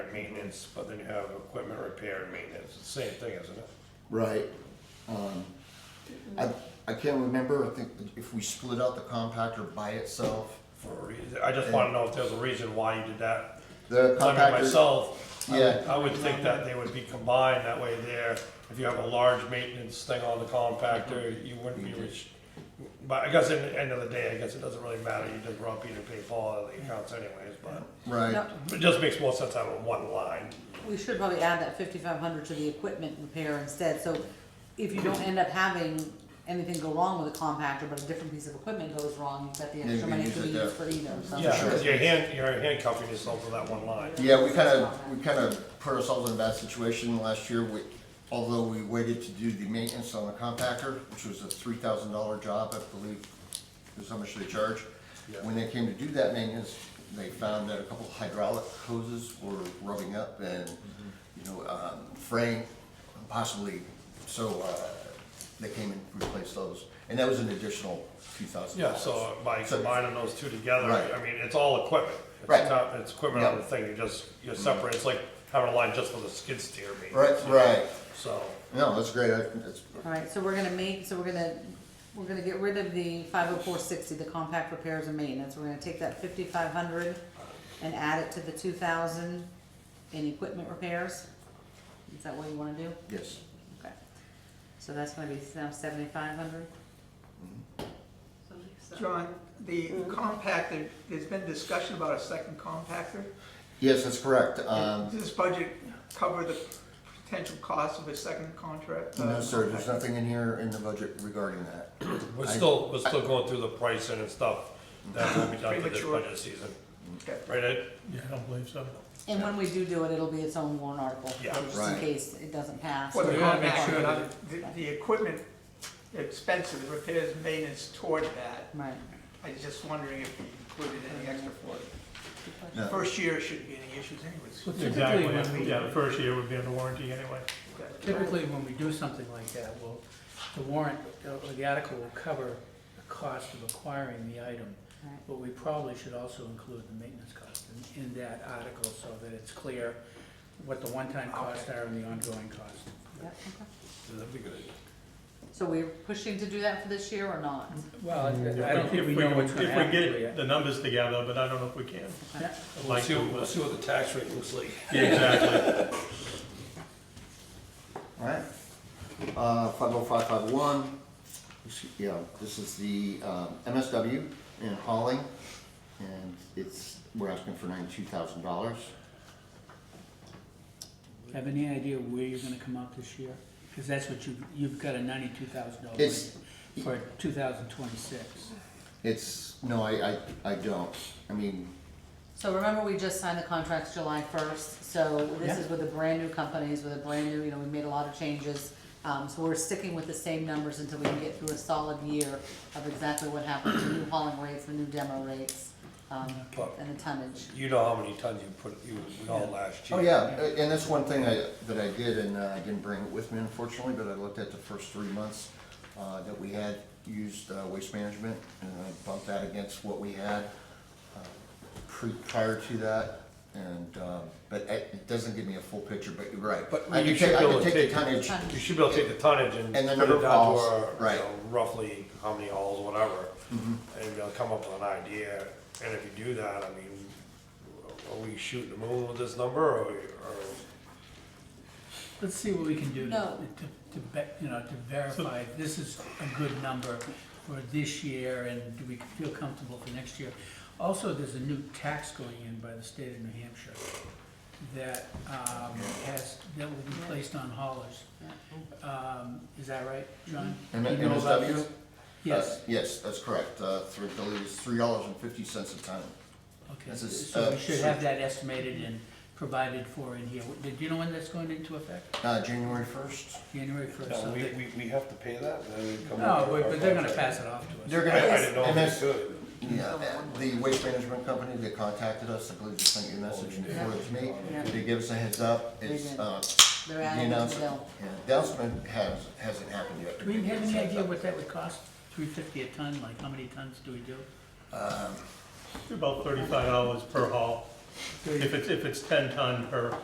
and maintenance, but then you have equipment repair and maintenance, it's the same thing, isn't it? Right. Um, I, I can't remember, I think if we split out the compactor by itself, For a reason, I just wanna know if there's a reason why you did that. the I mean, compactor, myself, I would- Yeah. I would think that they would be combined that way there. If you have a large maintenance thing on the Mm-hmm. compactor, you wouldn't be rich. But I guess at the end of the day, I guess it doesn't really matter, you just run Peter, pay Paul out of the accounts anyways, but right, No, it just makes more sense out of one line. we should probably add that fifty-five hundred to the equipment repair instead, so if you don't end up having anything go wrong with a compactor, but a different piece of equipment goes wrong, you've got the you extra can money use to be it there. used for either, so. Yeah, because you're hand, you're handcuffing yourself to that one line. yeah, we kinda, we kinda put ourselves in a bad situation last year, we, although we waited to do the maintenance on the compactor, which was a three thousand dollar job, I believe, is how much they charge. Yeah. When they came to do that maintenance, they found that a couple hydraulic hoses were rubbing up and, Mm-hmm. you know, um, fraying possibly, so, uh, they came and replaced those. And that was an additional two thousand Yeah, dollars. so by combining those two together, Right. I mean, it's all equipment. It's Right. not- It's equipment on the Yep. thing, you just, you separate, it's like having a line just for the skid steer maybe. Right, right. So, No, that's great, I think that's, Alright, so we're gonna make, so we're gonna, we're gonna get rid of the five oh four sixty, the compact repairs and maintenance, we're gonna take that fifty-five hundred and add it to the two thousand in equipment repairs, is that what you wanna do? yes, Okay, so that's gonna be now seventy-five hundred? John, the compactor, there's been discussion about a second compactor. yes, that's correct, um, Does this budget cover the potential cost of a second contract? uh, no, sir, there's compactor? nothing in here in the budget regarding that. we're I- still, we're still going through the pricing and stuff that will be done for this Premature. budget season, Okay. right, Ed? Yeah, I don't believe so. And when we do do it, it'll be its own warrant article, Yeah. just in Right. case it doesn't pass. Well, the We gotta make compactor, sure not- the, the equipment, the expense of the repairs, maintenance toward that, Right. I was just wondering if we included any extra for it. No. First year shouldn't be any issues anyways. Typically, Exactly, when yeah, the we, first year would be under warranty anyway. typically, when we do something like that, well, the warrant, uh, or the article will cover the cost of acquiring the item. Right. But we probably should also include the maintenance cost in, in that article so that it's clear what the one-time costs are and the ongoing costs. Yep, okay. That'd be good. So we're pushing to do that for this year or not? Well, I don't think we know what's gonna If we happen to get it. the numbers together, but I don't know if we can. Yeah. We'll Like see, we we'll would. see what the tax rate looks like. Yeah, Exactly. Alright, uh, five oh five five one, yeah, this is the, um, MSW in hauling, and it's, we're asking for ninety-two thousand dollars. Have any idea where you're gonna come out this year? Because that's what you, you've got a ninety-two thousand dollar It's- for two thousand twenty-six. It's, no, I, I, I don't, I mean, So remember, we just signed the contracts July first, so this Yeah. is with the brand new companies, with a brand new, you know, we made a lot of changes. Um, so we're sticking with the same numbers until we can get through a solid year of exactly what happened to new hauling rates, the new demo rates, um, But- and the tonnage. You know how many tons you put, you, we all last year. Oh, yeah, a- and that's one thing I, that I did, and uh, I didn't bring it with me unfortunately, but I looked at the first three months uh, that we had used uh, waste management, and I bumped that against what we had uh, pre, prior to that, and, um, but it it doesn't give me a full picture, but you're right. But I you can should take, I be can able to take take- the tonnage, You should be able to take the tonnage and And the put number it of down to hauls, our, you right. Mm-hmm. know, roughly how many hauls, whatever. And be able to come up with an idea, and if you do that, I mean, are we shooting the moon with this number, or, or, Let's see what we can do to, No. to, to be- you know, to verify this is a good number for this year and do we feel comfortable for next year? Also, there's a new tax going in by the state of New Hampshire that, um, has, that will be placed on haulers. Um, is that right, John? M- You know about MSW? this? Yes, Uh, Yes, that's correct, uh, three, I believe it's three dollars and fifty cents a ton. okay, this is, so uh, we should have that estimated and provided for in here. Did you know when that's going into effect? Uh, January first, January first, No, we, something? we, we have to pay that, and then we come No, up with but our but they're gonna contract. pass it off to us. they're gonna. I, I didn't know and if that's- they could. Yeah, uh, the waste management company, they contacted us, I believe they sent you a message and forwarded it to me. Yeah. They gave us a heads up, They it's, did. uh, They're the adding to the announcement, bill. yeah, announcement has, hasn't happened yet. Do we have any idea what that would cost? Three fifty a ton, like how many tons do we do? About thirty-five dollars per haul. If it's, if it's ten ton per